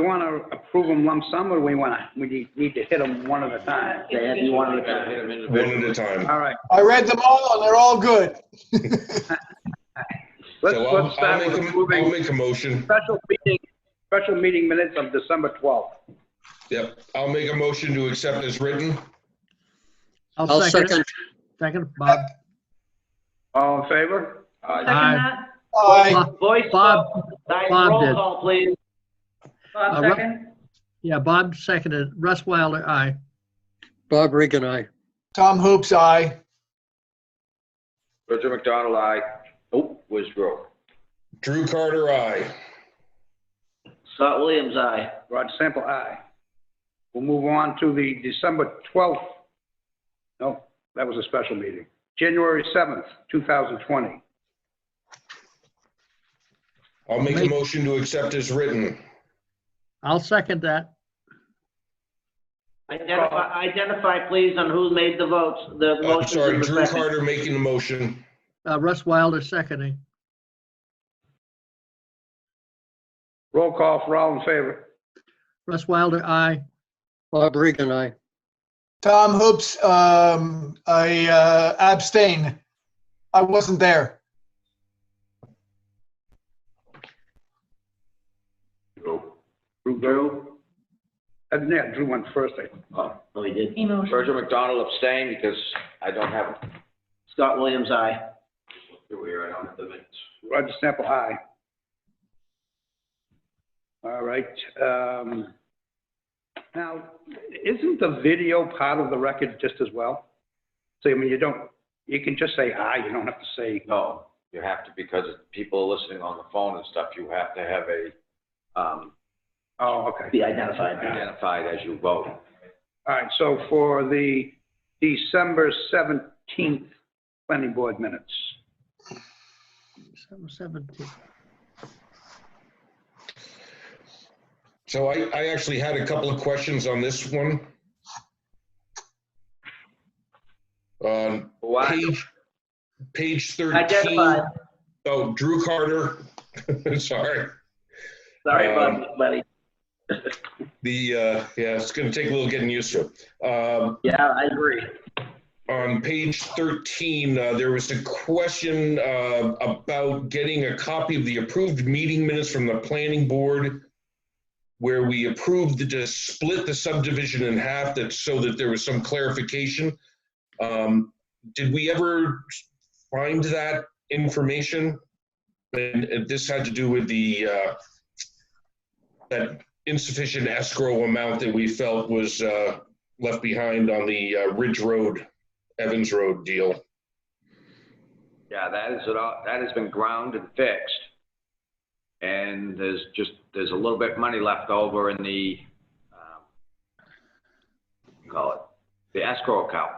We want to approve them lump sum, or we want to, we need- need to hit them one at a time? They have you one at a time. One at a time. All right, I read them all and they're all good. let's, So let's I'll, I'll start make, with a- I'll approving make a motion. special meeting, special meeting minutes of December 12th. Yep, I'll make a motion to accept as written. I'll second, Second, Bob. All in favor? Aye. Aye. that. I, uh, Voice. Bob, Diane, Bob roll did. call, please. Bob Uh, Ru- second. yeah, Bob seconded. Russ Wilder, aye. Bob Regan, aye. Tom Hoops, I. Roger McDonald, aye. Oh, was Rowe. Drew Carter, aye. Scott Williams, aye. Rod Sample, aye. We'll move on to the December 12th. No, that was a special meeting. January 7th, 2020. I'll make a motion to accept as written. I'll second that. Identify, identify, please, on who made the votes, the I'm motions Uh, sorry, and Drew the second. Carter making the motion. Uh, Russ Wilder seconding. Roll call for all in favor. Russ Wilder, aye. Bob Regan, aye. Tom Hoops, um, I uh, abstain. I wasn't there. Drew? Uh, Yeah, Drew went first, I think. Oh, no, he did. Emotion. Roger McDonald abstained because I don't have, Scott Williams, aye. here we are, I don't have the minutes. Roger Sample, aye. All right. um, Now, isn't the video part of the record just as well? So, I mean, you don't, you can just say aye, you don't have to say, No, you have to, because people are listening on the phone and stuff, you have to have a, um, oh, okay. Be identified. identified as you vote. All right, so for the December 17th planning board minutes, Seven seventeen. So I, I actually had a couple of questions on this one. On Why, page, page 13. Identified. Oh, Drew Carter, sorry. Sorry Um, about buddy. The, uh, yeah, it's going to take a little getting used to. Um, Yeah, I agree. on page 13, uh, there was a question uh, about getting a copy of the approved meeting minutes from the planning board where we approved the, to split the subdivision in half that, so that there was some clarification. Um, Did we ever find that information? And and this had to do with the, uh, that insufficient escrow amount that we felt was uh, left behind on the uh, Ridge Road Evans Road deal. yeah, that is, it all. that has been ground and fixed. And there's just, there's a little bit money left over in the, um, what do you call it, the escrow account.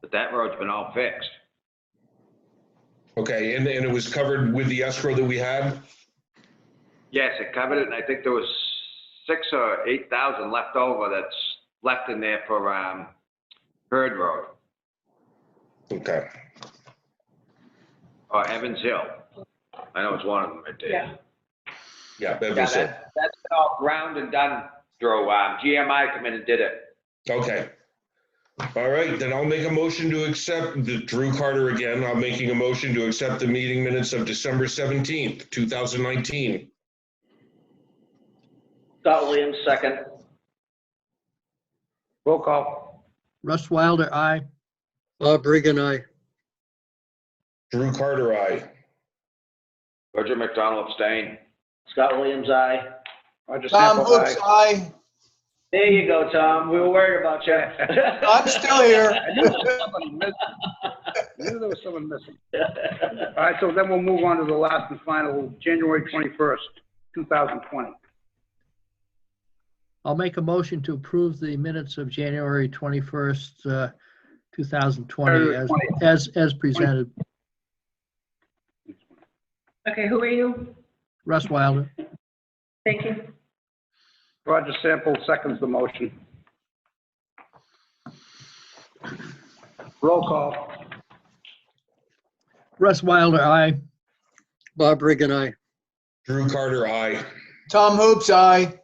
But that road's been all fixed. Okay, and, and it was covered with the escrow that we had? Yes, it covered it, and I think there was six or eight thousand left over that's left in there for, um, Bird Road Okay, or Evans Oh, Hill. I know it's one of them, I did. Yeah. yeah, Yeah, Evans Hill. that, that's been all ground and done through, um, GMI come in and did it. Okay. All right, then I'll make a motion to accept, the Drew Carter again, I'm making a motion to accept the meeting minutes of December 17th, 2019. Scott Williams, second. roll call. Russ Wilder, aye. Bob Regan, aye. Drew Carter, I. Roger McDonald abstained. Scott Williams, aye. Roger Tom Sample, Hoops, aye. I. There you go, Tom. We were worried about you. I'm still here. I knew there was somebody missing. I knew there was someone missing. All right, so then we'll move on to the last and final, January 21st, 2020. I'll make a motion to approve the minutes of January 21st, uh, 2020 January as, 20th. as, as presented. Okay, who are you? Russ Wilder, Thank you. Roger Sample seconds the motion. Roll call. Russ Wilder, aye. Bob Regan, aye. Drew Carter, I. Tom Hoops, I.